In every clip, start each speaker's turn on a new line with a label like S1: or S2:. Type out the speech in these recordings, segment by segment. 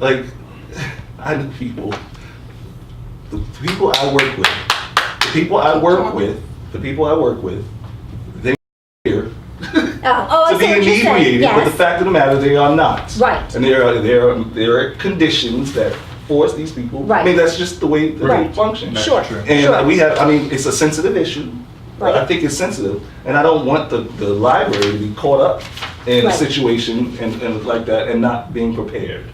S1: like I know people, the people I work with, the people I work with, the people I work with, they here
S2: Oh, oh, I
S1: to be
S2: see what you're saying,
S1: inebriated, but the
S2: yes.
S1: fact of the matter, they are not.
S2: Right.
S1: And there are there are there are conditions that force these people. I
S2: Right.
S1: mean, that's just the way that they
S2: Right.
S1: function.
S3: That's
S2: Sure.
S3: true.
S1: And
S2: Sure.
S1: we have, I mean, it's a sensitive issue. I
S2: Right.
S1: think it's sensitive, and I don't want the, the library to be caught up in a
S2: Right.
S1: situation and, and like that and not being prepared.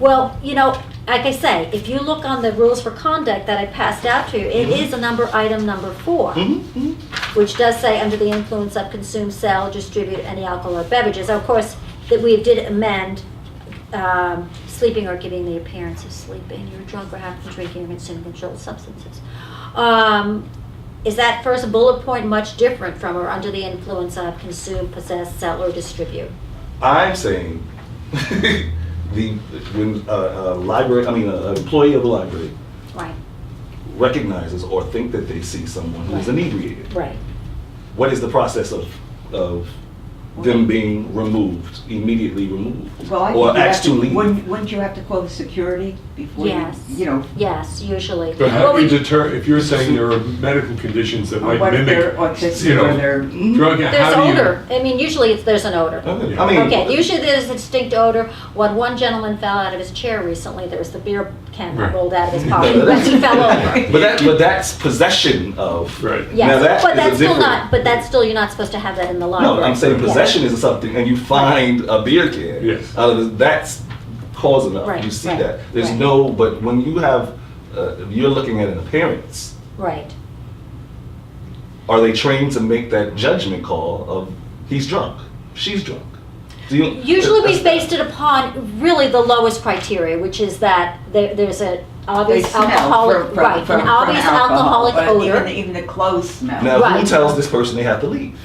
S2: Well, you know, like I say, if you look on the rules for conduct that I passed out to you, it is a number, item number four,
S1: Mm-hmm.
S2: which does say under the influence of consume, sell, distribute any alcohol or beverages. Of course, that we did amend um, sleeping or giving the appearance of sleeping, you're drunk or have been drinking or consuming controlled substances. Um, Is that first bullet point much different from or under the influence of consume, possess, sell, or distribute?
S1: I'm saying the when a, a library, I mean, an employee of a library
S2: Right,
S1: recognizes or think that they see someone who's
S2: Right.
S1: inebriated.
S2: right.
S1: what is the process of, of them being removed, immediately removed?
S4: Well, I
S1: Or
S4: think you
S1: asked
S4: have
S1: to
S4: to,
S1: leave?
S4: wouldn't, wouldn't you have to call the security before you,
S2: Yes.
S4: you know?
S2: Yes, usually.
S3: But
S2: Well,
S3: how do
S2: we-
S3: you deter, if you're saying there are medical conditions that
S4: or
S3: might
S4: What if they're
S3: mimic, you
S4: autistic or
S3: know,
S4: they're,
S3: drug,
S2: Mm-hmm. There's
S3: how do you?
S2: odor. I mean, usually it's, there's an odor.
S1: Okay,
S3: Yeah.
S1: I mean.
S2: Okay, usually there's a distinct odor. When one gentleman fell out of his chair recently, there was the beer can that
S3: Right.
S2: rolled out of his pocket as he fell over.
S1: But that, but that's possession of.
S3: Right.
S1: Now
S2: Yes,
S1: that
S2: but
S1: is a
S2: that's still
S1: different-
S2: not, but that's still, you're not supposed to have that in the library.
S1: No, I'm saying
S2: Yeah.
S1: possession is something, and you find a beer can.
S3: Yes.
S1: Out of this, that's cause enough,
S2: Right,
S1: you see
S2: right,
S1: that. There's
S2: right.
S1: no, but when you have, uh, you're looking at an appearance,
S2: Right,
S1: are they trained to make that judgment call of, he's drunk, she's drunk? Do you-
S2: Usually we
S1: that's-
S2: based it upon really the lowest criteria, which is that there, there's an obvious
S4: smell
S2: alcoholic,
S4: from- from-
S2: right,
S4: from-
S2: an
S4: from
S2: obvious
S4: alcohol,
S2: alcoholic
S4: but
S2: odor.
S4: Even, even the clothes smell.
S1: Now, who
S2: Right.
S1: tells this person they have to leave?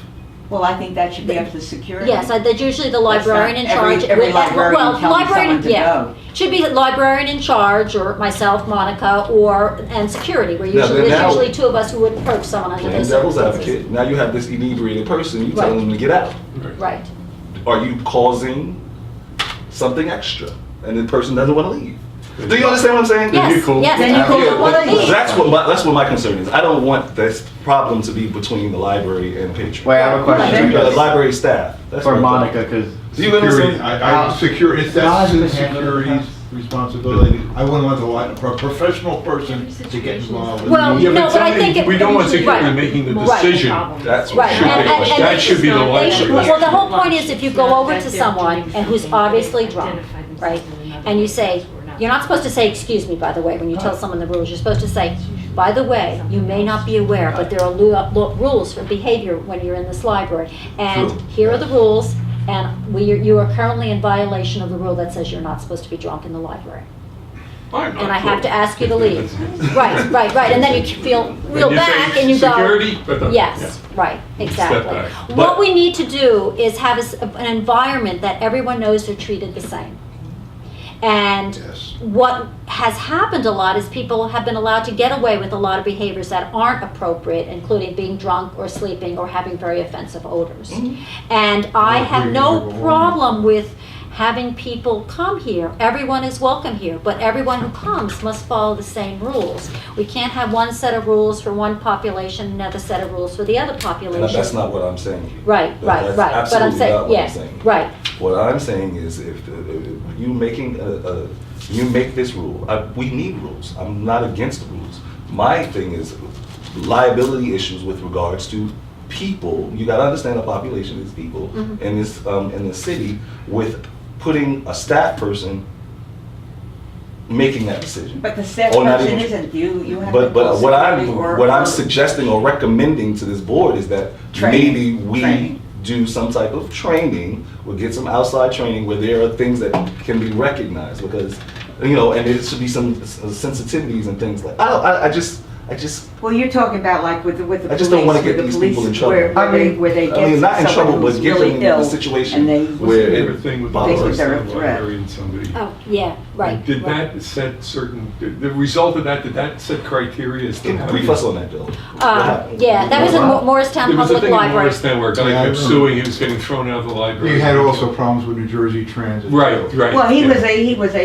S4: Well, I think that should be up to security.
S2: Yes, uh, that's usually the
S4: That's
S2: librarian
S4: not
S2: in
S4: every-
S2: charge.
S4: every
S2: with- uh,
S4: librarian
S2: well,
S4: telling
S2: librarian-
S4: someone to
S2: yeah.
S4: go.
S2: Should be librarian in charge, or myself, Monica, or, and security, where
S1: No, but
S2: usually, there's
S1: now-
S2: usually two of us who would approach someone under
S1: Playing
S2: those
S1: devil's
S2: circumstances.
S1: advocate, now you have this inebriated person, you tell
S2: Right.
S1: them to get out.
S3: Right.
S2: Right,
S1: Are you causing something extra? And the person doesn't want to leave. Do you understand what I'm saying?
S3: Then you
S2: yes,
S3: call-
S2: yes.
S4: Then you
S2: and
S4: call
S2: people
S4: the
S2: wanna
S4: police.
S2: leave.
S1: That's what my, that's what my concern is. I don't want this problem to be between the library and patron.
S5: Wait, I have a question
S1: The
S5: because-
S1: library staff. That's
S5: for
S1: what I'm-
S5: Monica because
S1: Do you understand?
S6: Security, I, I, secure, it's that's the security's responsibility. I wouldn't want the, li- for a professional person to get involved. with
S2: Well,
S6: me.
S3: Yeah,
S2: No,
S3: but
S2: but I
S3: somebody-
S2: think it-
S3: We don't want
S2: right.
S3: security making the
S2: Right.
S3: decision.
S1: That's what
S2: Right,
S1: should
S2: and,
S1: be.
S2: and, and.
S3: That
S2: they-
S3: should be the
S2: they should-
S3: library.
S2: Well, the whole point is if you go over to someone and who's obviously drunk, right? And you say, you're not supposed to say, excuse me, by the way, when you tell someone the rules, you're supposed to say, by the way, you may not be aware, but there are lu- lu- rules for behavior when you're in this library. And
S1: True.
S2: here are the rules, and we, you are currently in violation of the rule that says you're not supposed to be drunk in the library.
S3: I'm
S2: And
S3: not
S2: I have to
S3: sure.
S2: ask you to leave. Right, right, right, and then you feel real
S3: you say
S2: back and you go.
S3: security, but the-
S2: Yes, right, exactly.
S3: back.
S2: What
S3: But-
S2: we need to do is have a s- an environment that everyone knows they're treated the same. And
S6: Yes.
S2: what has happened a lot is people have been allowed to get away with a lot of behaviors that aren't appropriate, including being drunk or sleeping or having very offensive odors.
S3: Mm-hmm.
S2: And I have no problem with having people come here. Everyone is welcome here, but everyone who comes must follow the same rules. We can't have one set of rules for one population, another set of rules for the other population.
S1: No, That's not what I'm saying.
S2: Right,
S1: That-
S2: right,
S1: that's
S2: right. But I'm
S1: absolutely not
S2: saying,
S1: what I'm
S2: yes,
S1: saying.
S2: right,
S1: What I'm saying is, if, if you making a, a you make this rule, I, we need rules. I'm not against rules. My thing is liability issues with regards to people. You got to understand the population is people
S2: Mhm.
S1: in this um, in the city with putting a staff person making that decision.
S4: But the staff
S1: Or not
S4: person
S1: even-
S4: isn't, you, you have to
S1: But,
S4: call
S1: but what
S4: security
S1: I'm,
S4: or.
S1: what I'm
S4: or-
S1: suggesting or recommending to this board is that
S4: Training.
S1: maybe we
S4: Training.
S1: do some type of training, we'll get some outside training where there are things that can be recognized, because, you know, and there should be some s- uh, sensitivities and things like, I, don't- I, I just, I just,
S4: Well, you're talking about like with the, with the
S1: I
S4: police.
S1: just don't wanna
S4: with
S1: get
S4: the
S1: these people in
S4: police,
S1: trouble.
S4: Where, where
S5: I
S4: they,
S5: mean-
S4: where they
S1: I mean, not in
S4: get
S1: trouble,
S4: someone
S1: but
S4: who's
S1: get them
S4: really
S1: in
S4: ill.
S1: a situation
S4: and they-
S3: What's
S1: where
S3: the other
S1: it
S3: thing with the
S1: bothers
S4: Think they're a
S3: Palestine
S4: threat.
S3: library and somebody?
S2: oh, yeah, right.
S3: Did
S2: right.
S3: that set certain, did the result of that, did that set criteria as to
S1: Can
S3: how
S1: brief
S3: you-
S1: us on that, Bill.
S2: Uh, yeah, that was in Mo- Morristown
S3: There was a
S2: Public
S3: thing in
S2: Library.
S3: Morristown where a
S6: Yeah, I
S3: guy kept
S6: remember.
S3: suing, he was getting thrown out of the library.
S6: You had also problems with New Jersey Transit.
S3: Right, right.
S4: Well, he
S3: yeah.
S4: was a, he was a